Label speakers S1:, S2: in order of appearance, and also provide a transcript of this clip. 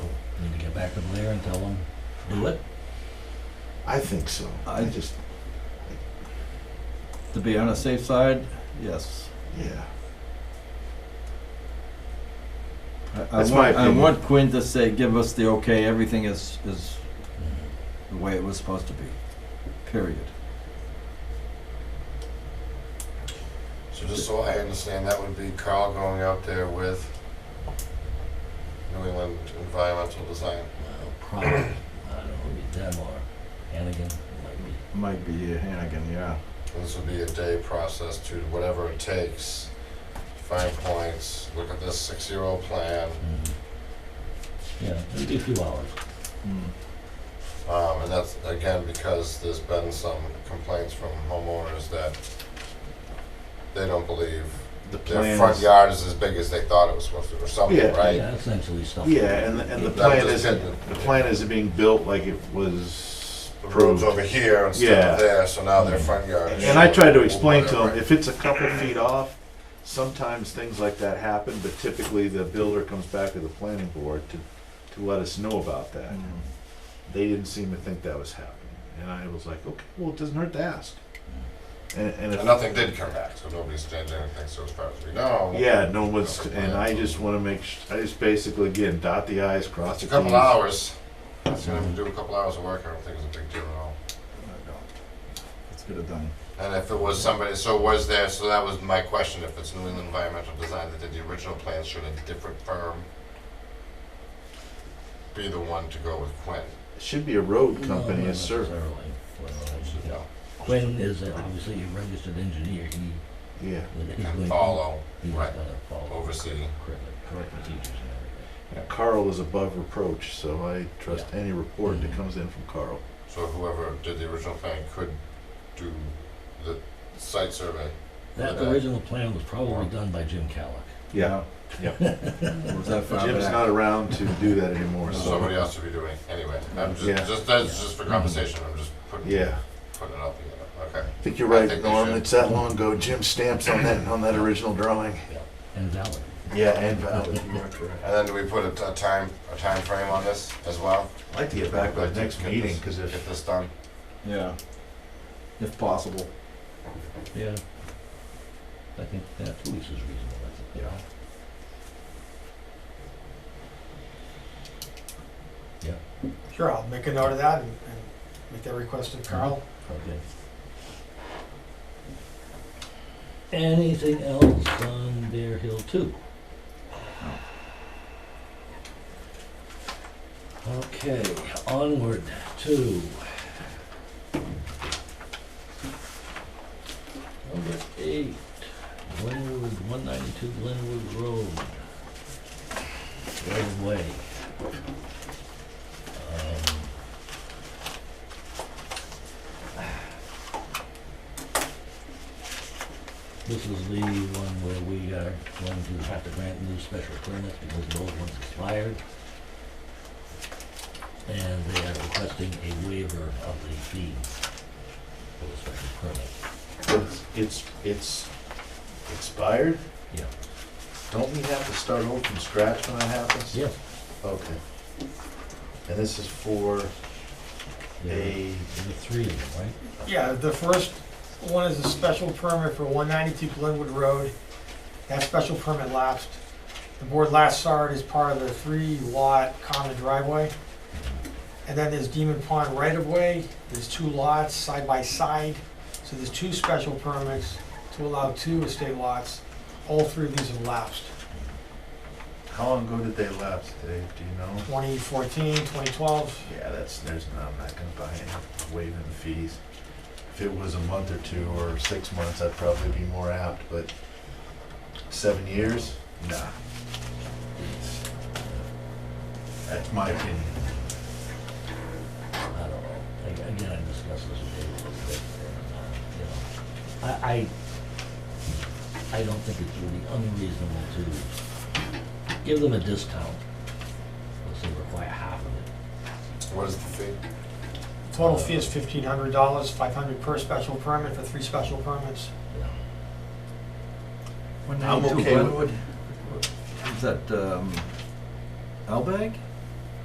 S1: back over there and tell them, do it?
S2: I think so. I
S3: I-
S2: just,
S3: To be on the safe side, yes.
S2: yeah.
S3: I- I
S2: That's
S3: want-
S2: my opinion.
S3: I want Quinn to say, give us the okay, everything is, is the way it was supposed to be, period.
S4: So just so I understand, that would be Carl going out there with New England Environmental Design.
S1: Well, probably, I don't know, it'd be them or Hannigan, might be.
S3: Might be Hannigan, yeah.
S4: And This would be a day process to whatever it takes, find points, look at this six-year-old plan,
S1: Mhm. Yeah, it'd be a few hours.
S4: Um, and that's, again, because there's been some complaints from homeowners that they don't believe
S2: The
S4: their
S2: plan
S4: front
S2: is-
S4: yard is as big as they thought it was supposed to, or something,
S2: Yeah.
S4: right?
S1: Yeah, essentially stuff.
S2: Yeah, and, the- and the
S4: That's what
S2: plan
S4: they
S2: isn't,
S4: said.
S2: the plan isn't being built like it was
S4: The road's
S2: approved.
S4: over here instead of
S2: Yeah.
S4: there, so now their front yard is.
S2: And I tried to
S4: shorter,
S2: explain to them,
S4: whatever.
S2: if it's a couple feet off, sometimes things like that happen, but typically the builder comes back to the planning board to, to let us know about that.
S4: Hmm.
S2: They didn't seem to think that was happening, and I was like, okay, well, it doesn't hurt to ask. And, and
S4: Hmm. And
S2: if,
S4: nothing did come back, so nobody's changed anything, so as far as we know.
S2: yeah, no one's, and I just wanna make, sh- I just basically, again, dot the i's, cross
S4: It's
S2: the
S4: a
S2: t's.
S4: couple hours, it's gonna do a couple hours of work, I don't think it's a big deal at all.
S3: Let's get it done.
S4: And if it was somebody, so was there, so that was my question, if it's New England Environmental Design that did the original plan, should a different firm be the one to go with Quinn?
S2: It Should be a road
S1: No,
S2: company,
S1: not
S2: a survey,
S1: necessarily. Well,
S4: No.
S1: yeah. Quinn is uh, obviously a registered engineer, he,
S2: yeah.
S1: he's
S4: And
S1: going-
S4: follow,
S1: he's
S4: right,
S1: gonna follow
S4: oversee.
S1: correct, correct procedures and everything.
S2: Yeah, Carl is above reproach, so I trust any report that
S3: Mm-hmm.
S2: comes in from Carl.
S4: So whoever did the original plan could do the site survey.
S1: That
S4: Okay.
S1: original plan was probably done by Jim Calic.
S2: Yeah.
S3: Yeah. Was that far
S2: Jim's
S3: back?
S2: not around to do that anymore,
S4: Or
S2: so,
S4: somebody else would be doing, it. anyway, I'm just,
S2: Yeah.
S4: just, that's just for conversation, I'm just putting,
S2: yeah.
S4: putting it out together, okay.
S2: I think you're
S4: I
S2: right,
S4: think they
S2: Norm,
S4: should.
S2: it's that long ago, Jim stamps on that, on that original drawing.
S1: And valid.
S2: Yeah, and uh, valid. You are correct.
S4: And then do we put a, a time, a time frame on this as well?
S2: I'd like to get back by next meeting, cause
S4: Get
S2: if,
S4: this done?
S3: Yeah. If possible.
S1: Yeah. I think that two weeks is reasonable, that's it.
S5: Sure, I'll make a note of that and, and make that request to Carl.
S1: Mm-hmm. Okay. Anything else on Bear Hill two? Okay, onward to. Number eight, Glenwood, one ninety-two Glenwood Road. Right way. Um, This is the one where we are going to have to grant new special permits because the old ones expired. And they are requesting a waiver of the fee for the special permit.
S2: it's- it's, it's expired,
S1: Yeah.
S2: don't we have to start over from scratch when that happens?
S1: Yeah.
S2: Okay. And this is for
S1: There
S2: a,
S1: were three of them, right?
S5: Yeah, the first one is a special permit for one ninety-two Glenwood Road. That special permit lapsed. The board last saw it as part of the three lot common driveway. And then there's Demon Pond right of way, there's two lots side by side. So there's two special permits to allow two estate lots. All three of these have lapsed.
S2: how long ago did they lapse, Dave, do you know?
S5: 2014, 2012.
S2: Yeah, that's, there's, no, I'm not gonna buy it, waiving the fees. If it was a month or two or six months, I'd probably be more apt, but seven years? Nah. It's- That's my opinion.
S1: I don't know. Ag- Again, I discussed this with David a little bit, and, uh, you know, I, I, I don't think it would be unreasonable to give them a discount. Let's say require half of it.
S4: What is the fee?
S5: Total fee is fifteen hundred dollars, five hundred per special permit for three special permits.
S2: I'm okay with,
S3: Is that, um, Elbag?